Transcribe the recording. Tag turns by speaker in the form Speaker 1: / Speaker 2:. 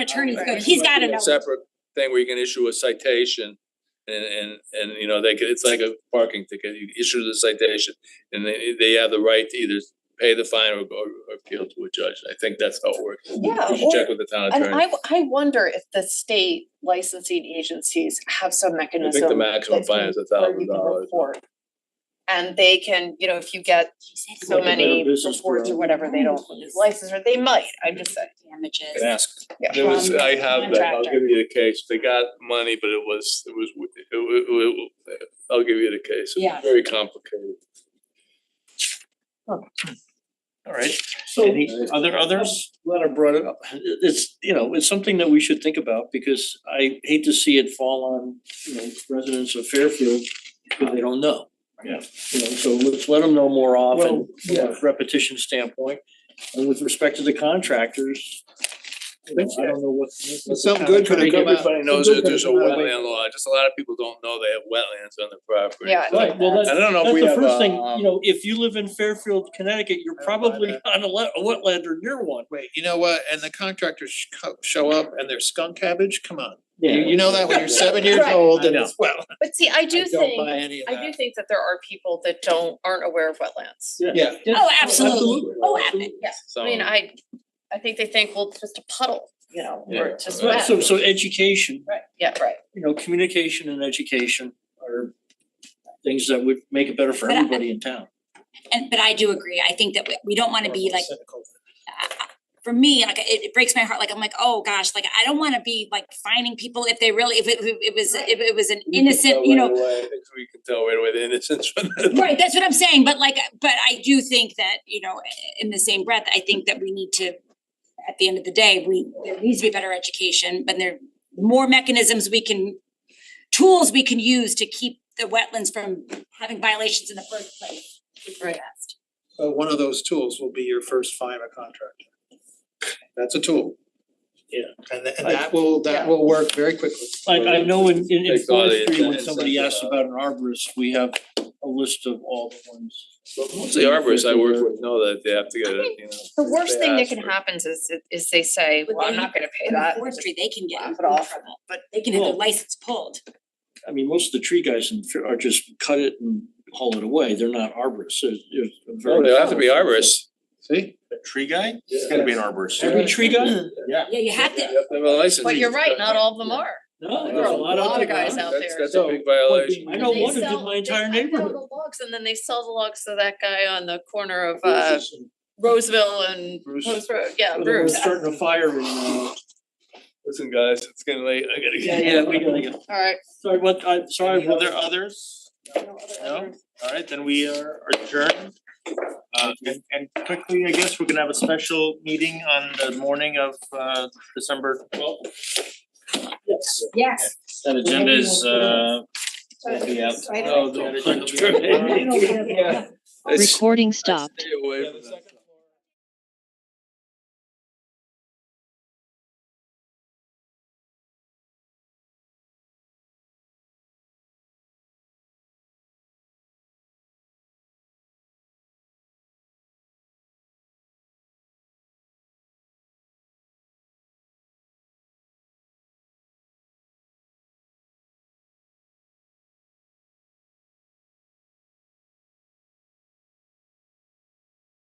Speaker 1: attorney's
Speaker 2: Right.
Speaker 1: good, he's gotta know.
Speaker 3: Separate thing where you can issue a citation and and and you know, they could, it's like a parking ticket, you issue the citation. And they they have the right to either pay the fine or or or appeal to a judge, I think that's how it works.
Speaker 2: Yeah,
Speaker 3: You should
Speaker 2: or-
Speaker 3: check with the town
Speaker 2: And I
Speaker 3: attorney,
Speaker 2: w- I wonder if the state licensing agencies have some mechanism.
Speaker 3: I think the maximum
Speaker 2: that can-
Speaker 3: fine is a
Speaker 2: where
Speaker 3: thousand
Speaker 2: you can
Speaker 3: dollars.
Speaker 2: report. And they can, you know, if you get so
Speaker 4: Like a
Speaker 2: many
Speaker 4: better business
Speaker 2: reports or
Speaker 4: plan.
Speaker 2: whatever, they don't license, or they might, I'm just saying,
Speaker 1: Damages.
Speaker 4: ask.
Speaker 3: There was,
Speaker 1: from
Speaker 3: I
Speaker 1: the
Speaker 3: have that, I'll
Speaker 1: contractor.
Speaker 3: give you the case, they got money, but it was, it was, it it it- I'll give you the case,
Speaker 1: Yeah.
Speaker 3: it's very complicated.
Speaker 4: Alright,
Speaker 5: So,
Speaker 4: any other others?
Speaker 5: glad I brought it up.
Speaker 4: It's, you know, it's something that we should think about because I hate to see it fall on, you know, residents of Fairfield because they don't know.
Speaker 5: Yeah.
Speaker 4: You know, so let's let them know more
Speaker 5: Well,
Speaker 4: often, from
Speaker 5: yeah.
Speaker 4: a repetition standpoint. And with respect to the contractors, you know, I don't know what. what the
Speaker 5: Something
Speaker 4: town
Speaker 5: good could have
Speaker 4: attorney-
Speaker 5: come out.
Speaker 3: Everybody knows
Speaker 5: Something
Speaker 3: that there's a
Speaker 5: good could come out.
Speaker 3: wetland law, just a lot of people don't know they have wetlands on their property.
Speaker 2: yeah.
Speaker 4: Right, well,
Speaker 3: I don't know
Speaker 4: That's
Speaker 3: if we
Speaker 4: the
Speaker 3: have
Speaker 4: first thing,
Speaker 3: um,
Speaker 4: you know, if you live in Fairfield, Connecticut, you're probably on a le- a wetland or near one.
Speaker 6: Wait, you know what? And the contractors sh- co- show up and they're skunk cabbage? Come on. You, you know that when you're seven years
Speaker 2: Right.
Speaker 6: old
Speaker 4: I
Speaker 6: and
Speaker 4: know.
Speaker 6: it's, well,
Speaker 2: But see, I do
Speaker 6: I don't buy
Speaker 2: think,
Speaker 6: any of
Speaker 2: I do
Speaker 6: that.
Speaker 2: think that there are people that don't, aren't aware of wetlands.
Speaker 6: Yeah.
Speaker 1: Oh, absolutely, oh, absolutely.
Speaker 3: So.
Speaker 2: I mean, I, I think they think, well, it's just a puddle, you know, or it's just
Speaker 4: Right,
Speaker 2: wet.
Speaker 4: so so education,
Speaker 2: Right, yeah, right.
Speaker 4: you know, communication and education are things that would make it better for
Speaker 1: But I-
Speaker 4: everybody in town.
Speaker 1: And but I do agree, I think that we we don't wanna be like,
Speaker 6: Cynical.
Speaker 1: I- I- for me, like it it breaks my heart, like I'm like, oh gosh, like I don't wanna be like finding people if they really, if it if it was, if it was an innocent, you know.
Speaker 3: We can tell right away the innocence from the.
Speaker 1: Right, that's what I'm saying, but like, but I do think that, you know, in the same breath, I think that we need to, at the end of the day, we, there needs to be better education, but there, more mechanisms we can, tools we can use to keep the wetlands from having violations in the first place. is the
Speaker 2: Right.
Speaker 1: best.
Speaker 6: So one of those tools will be your first fine a contractor. That's a tool.
Speaker 4: Yeah.
Speaker 6: And tha- and that will, that will work very quickly.
Speaker 4: I I know in in in
Speaker 3: Take all the
Speaker 4: forestry, when
Speaker 3: incentives
Speaker 4: somebody
Speaker 3: that,
Speaker 4: asks
Speaker 3: uh,
Speaker 4: about an arborist, we have a list of all the ones.
Speaker 3: Most of the arborists I work with know that they have to get a, you know.
Speaker 2: The worst thing that can
Speaker 3: happen.
Speaker 2: happen is, is they say,
Speaker 1: But
Speaker 2: well, I'm
Speaker 1: they-
Speaker 2: not gonna pay
Speaker 1: In
Speaker 2: that.
Speaker 1: forestry, they can get in
Speaker 2: Laugh it off.
Speaker 1: trouble, but they can have their
Speaker 4: Well-
Speaker 1: license pulled.
Speaker 4: I mean, most of the tree guys in Fair are just cut it and haul it away. They're not arborists. They're they're very.
Speaker 3: No, they have to be arborists.
Speaker 6: See?
Speaker 7: A tree guy?
Speaker 3: Yeah.
Speaker 7: It's gotta be an arborist.
Speaker 4: Every tree guy?
Speaker 1: Yeah, you have to,
Speaker 3: You have to have a license.
Speaker 2: But you're right, not all of them are.
Speaker 4: No,
Speaker 3: There
Speaker 4: there's
Speaker 3: are
Speaker 4: a
Speaker 3: a
Speaker 4: lot
Speaker 2: lot
Speaker 4: of
Speaker 2: of guys out
Speaker 3: That's
Speaker 2: there.
Speaker 3: that's a big violation.
Speaker 4: I know
Speaker 2: They
Speaker 4: one who
Speaker 2: sell-
Speaker 4: did my
Speaker 2: they- I
Speaker 4: entire
Speaker 2: found
Speaker 4: neighborhood.
Speaker 2: the logs and then they sell the logs to that guy on the corner of uh Roseville and
Speaker 3: Bruce.
Speaker 2: Post Road, yeah,
Speaker 4: Well, they were
Speaker 2: Bruce.
Speaker 4: starting a fire and uh.
Speaker 3: Listen, guys, it's getting late, I gotta.
Speaker 4: Yeah,
Speaker 3: get-
Speaker 4: yeah, we gotta go.
Speaker 2: Alright.
Speaker 4: Sorry, what, I, sorry,
Speaker 7: Sorry,
Speaker 4: were
Speaker 7: were
Speaker 4: there
Speaker 7: there
Speaker 4: other?
Speaker 7: others? No? Alright, then we are adjourned. Uh, and, and quickly, I guess, we're gonna have a special meeting on the morning of, uh, December twelfth.
Speaker 4: Yes.
Speaker 1: yes,
Speaker 7: That agenda is, uh, will be out.
Speaker 4: Oh, the
Speaker 3: Yeah. It's-
Speaker 8: Recording stopped.
Speaker 3: Stay away from that.